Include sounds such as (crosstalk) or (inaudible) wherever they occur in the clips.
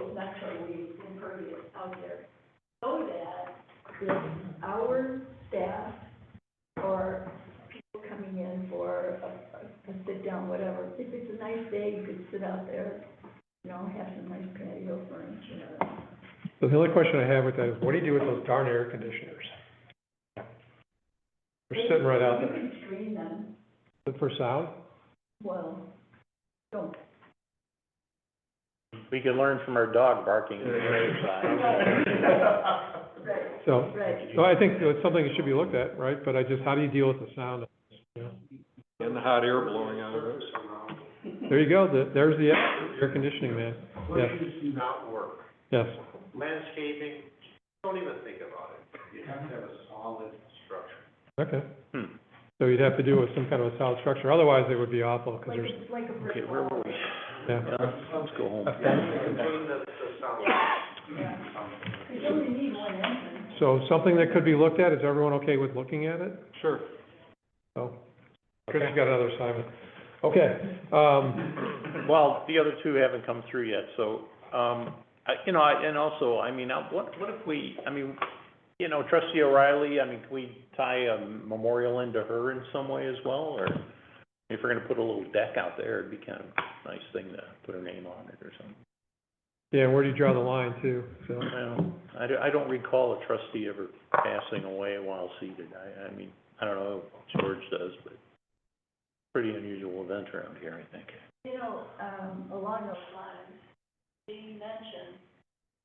is actually impervious out there. So that if our staff or people coming in for a, a sit-down, whatever, if it's a nice day, you could sit out there, you know, have some nice patio furniture. So the only question I have with that is, what do you do with those darn air conditioners? They're sitting right out You there. can screen them, Good for sound? well, don't. We can learn from our dog (laughs) barking. (laughs) Right, So, right. so I think that's something that should be looked at, right? But I just, how do you deal with the sound? (laughs) And the hot air blowing out of it. There you go, the- there's the air air conditioning man. Yes. Bushes do not work. Yes, Landscaping, don't even think about it. You have to have a solid structure. okay. Hmm. So you'd have to do it with some kind of a solid structure, otherwise it would be awful, Like, because there's, a- like a Okay, brick where wall. were we? yeah. Let's go home. Between the, the solid. You only need one entrance. So something that could be looked at, is everyone okay with looking at it? Sure. So, Chris has got another assignment. Okay, um, Well, the other two haven't come through yet, so, um, I, you know, I, and also, I mean, I- what, what if we, I mean, you know, trustee O'Reilly, I mean, can we tie a memorial into her in some way as well, or if we're gonna put a little deck out there, it'd be kind of a nice thing to put her name on it or something. yeah, where do you draw the line too? So, Well, I don't, I don't recall a trustee ever passing away while seated. I, I mean, I don't know if George does, but pretty unusual event around here, I think. You know, um, along those lines, Dean mentioned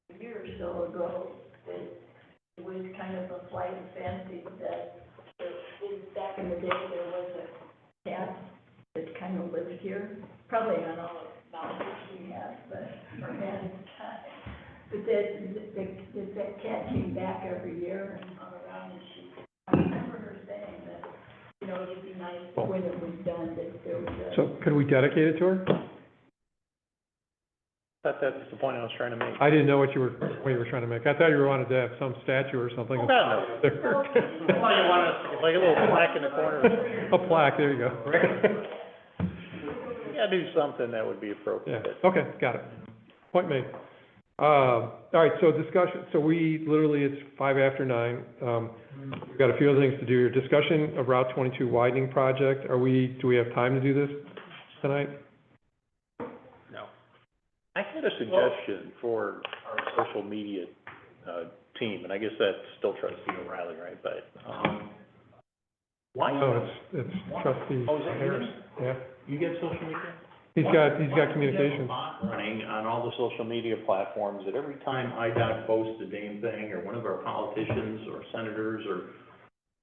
a year or so ago that it was kind of a flight of fancy that, that in- back in the day, there was a cat that kind of lived here, probably on all the mountains we have, but, or had at the time. But that, that, that- that cat came back every year and hung around and she, I remember her saying that, you know, it'd be nice when it was done, that there was a. so could we dedicate it to her? That, that's the point I was trying to make. I didn't know what you were, what you were trying to make. I thought you wanted to have some statue or something. Oh, God, I thought you wanted, like a little plaque in the corner. (laughs) A plaque, there you go. Yeah, do something that would be Yeah, appropriate. okay, got it. Point made. Um, all right, so discussion, so we, literally, it's five after nine. Um, we've got a few other things to do here. Discussion of Route twenty-two widening project. Are we, do we have time to do this tonight? I had a suggestion for our social media, uh, team, and I guess that's still trustee O'Reilly, right? But, um, why, No, oh, it's, it's trustee is that Harris. Yeah, yours? You get social media? he's got, he's got communication communications. Running on all the social media platforms, that every time IDOT posts a damn thing, or one of our politicians, or senators, or,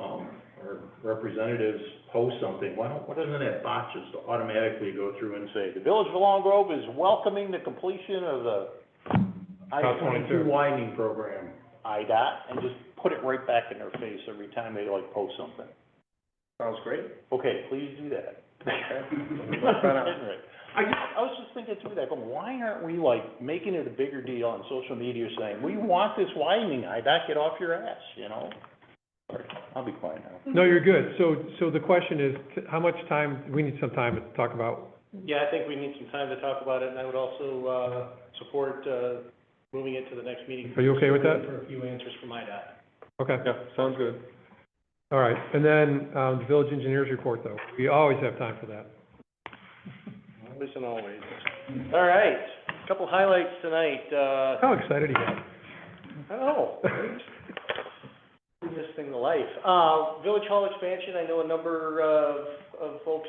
um, or representatives post something, why don't, why doesn't that bot just automatically go through and say, the Village of Long Grove is welcoming the completion of the I Route 22. twenty-two widening program, IDOT, and just put it right back in their face every time they like post something. Sounds great. Okay, please do that. Work that out. Henry, I just, I was just thinking through that, but why aren't we like making it a bigger deal on social media saying, we want this widening, I back it off your ass, you know? Sorry, I'll be quiet now. No, you're good. So, so the question is, t- how much time, we need some time to talk about Yeah, I think we need some time to talk about it, and I would also, uh, support, uh, moving it to the next meeting. Are you okay with that? For a few answers from IDOT. Okay, Yeah, sounds good. all right. And then, um, the village engineers report, though. We always have time for that. Listen always. All right, a couple highlights tonight, uh, How excited he got. I don't know, bring Oh, this thing to life. Uh, Village Hall expansion, I know a number of, of folks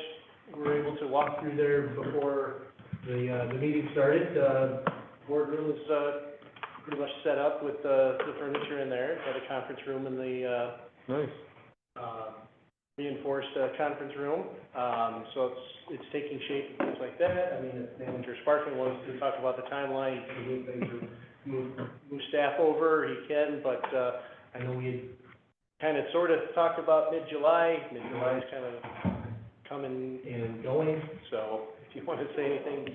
were able to walk through there before the, uh, the meeting started. Uh, boardroom is, uh, pretty much set up with, uh, the furniture in there, got a conference room in the, uh, Nice. uh, reinforced uh, conference room. Um, So it's, it's taking shape and things like that. I mean, if Manager Sparkman wants to talk about the timeline, he can move things, or move, move staff over, he can, but uh, I know we had kind of sort of talked about mid-July. Mid-July is kind of coming and going, so if you want to say anything,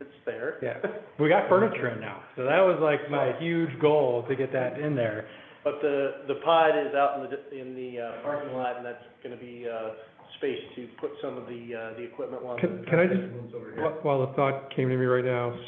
it's there. Yeah, we got furniture in now, so that was like my huge goal, to get that in there. But the, the pod is out in the, in the uh, parking lot, and that's gonna be, uh, space to put some of the, uh, the equipment along Can- the. can I just- Rooms over here. Wh- While the thought came to me right now,